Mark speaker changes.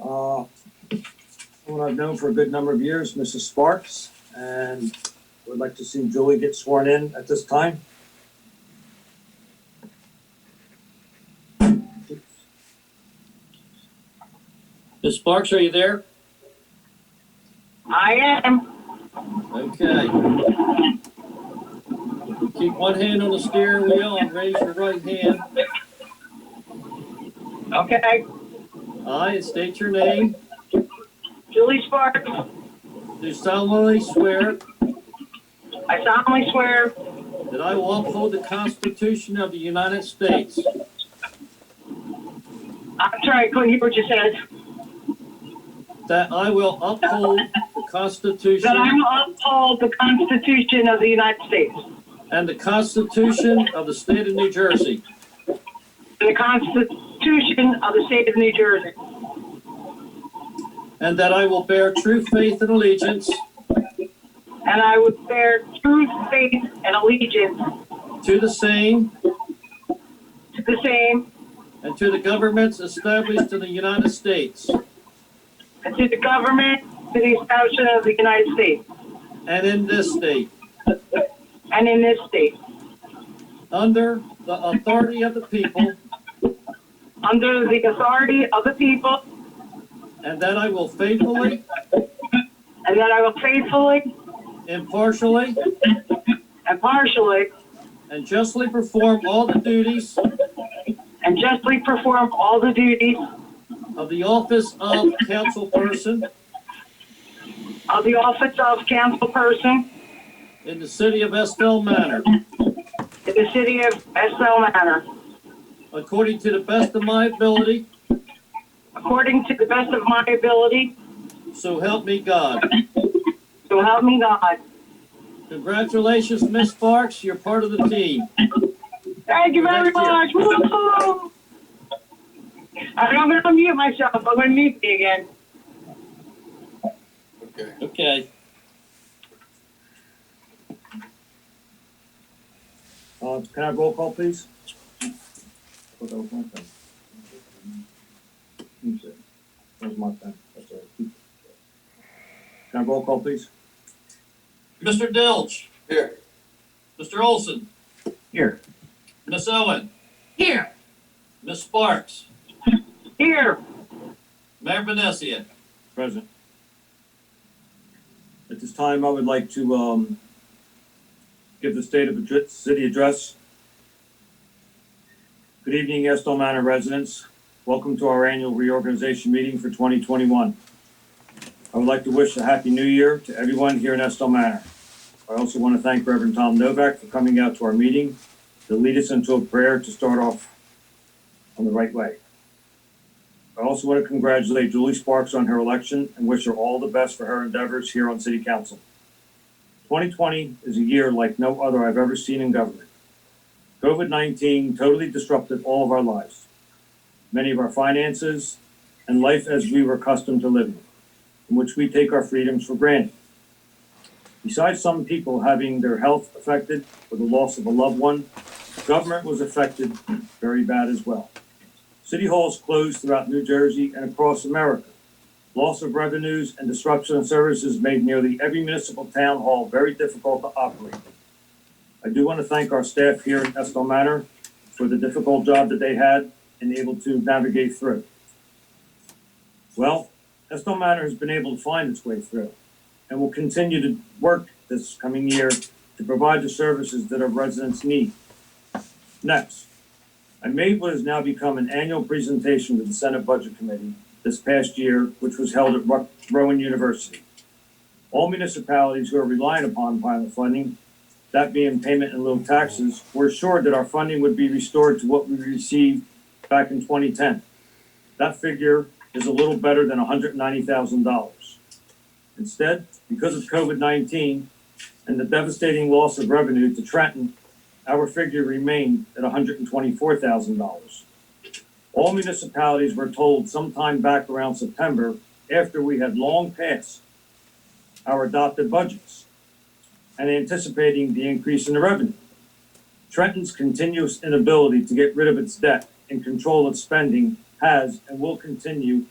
Speaker 1: Uh, someone I've known for a good number of years, Mrs. Sparks, and would like to see Julie get sworn in at this time.
Speaker 2: Ms. Sparks, are you there?
Speaker 3: I am.
Speaker 2: Okay. Keep one hand on the steering wheel and raise your right hand.
Speaker 3: Okay.
Speaker 2: I, and state your name,
Speaker 3: Julie Sparks,
Speaker 2: do solemnly swear
Speaker 3: I solemnly swear
Speaker 2: that I will uphold the Constitution of the United States.
Speaker 3: I'm sorry, I couldn't hear what you said.
Speaker 2: That I will uphold the
Speaker 3: That I
Speaker 2: Constitution
Speaker 3: will uphold the Constitution of the United States
Speaker 2: and the Constitution of the State of New Jersey.
Speaker 3: and the Constitution of the State of New Jersey,
Speaker 2: And that I will bear true faith and allegiance
Speaker 3: and I would bear true faith and allegiance
Speaker 2: to the same
Speaker 3: to the same
Speaker 2: and to the governments established in the United States
Speaker 3: and to the government, to the establishment of the United States
Speaker 2: and in this state,
Speaker 3: and in this state,
Speaker 2: under the authority of the people,
Speaker 3: under the authority of the people,
Speaker 2: and that I will faithfully,
Speaker 3: and that I will faithfully,
Speaker 2: impartially,
Speaker 3: and partially,
Speaker 2: and justly perform all the duties
Speaker 3: and justly perform all the duties
Speaker 2: of the office of councilperson
Speaker 3: of the office of councilperson
Speaker 2: in the city of Estill Manor,
Speaker 3: in the city of Estill Manor,
Speaker 2: according to the best of my ability,
Speaker 3: according to the best of my ability,
Speaker 2: so help me God.
Speaker 3: so help me God.
Speaker 2: Congratulations, Miss Sparks, you're part of the team.
Speaker 3: Thank you very
Speaker 2: Thank you.
Speaker 3: much. Woo-hoo! I'm going to unmute myself. I'm going to mute me again.
Speaker 4: Okay.
Speaker 2: Okay.
Speaker 1: Uh, can I have roll call, please? That was my pen. Let me see. That was my pen. That's all right. Can I have roll call, please?
Speaker 2: Mr. Dilch,
Speaker 4: Here.
Speaker 2: Mr. Olson,
Speaker 1: Here.
Speaker 2: Miss Owen,
Speaker 3: Here.
Speaker 2: Miss Sparks,
Speaker 3: Here.
Speaker 2: Mayor Vinesia.
Speaker 1: Present. At this time, I would like to, um, give the state of the city address. Good evening, Estill Manor residents. Welcome to our annual reorganization meeting for twenty twenty-one. I would like to wish a happy new year to everyone here in Estill Manor. I also want to thank Reverend Tom Novak for coming out to our meeting to lead us into a prayer to start off on the right way. I also want to congratulate Julie Sparks on her election and wish her all the best for her endeavors here on City Council. 2020 is a year like no other I've ever seen in government. COVID 19 totally disrupted all of our lives, many of our finances, and life as we were accustomed to living, in which we take our freedoms for granted. Besides some people having their health affected or the loss of a loved one, government was affected very bad as well. City halls closed throughout New Jersey and across America. Loss of revenues and disruption of services made nearly every municipal town hall very difficult to operate. I do want to thank our staff here in Estill Manor for the difficult job that they had and able to navigate through. Well, Estill Manor has been able to find its way through and will continue to work this coming year to provide the services that our residents need. Next, I made what has now become an annual presentation to the Senate Budget Committee this past year, which was held at Ro- Rowan University. All municipalities who are relying upon pilot funding, that being payment in lieu of taxes, were assured that our funding would be restored to what we received back in 2010. That figure is a little better than $190,000. Instead, because of COVID-19 and the devastating loss of revenue to Trenton, our figure remained at $124,000. All municipalities were told sometime back around September, after we had long passed our adopted budgets and anticipating the increase in the revenue. Trenton's continuous inability to get rid of its debt and control its spending has and will continue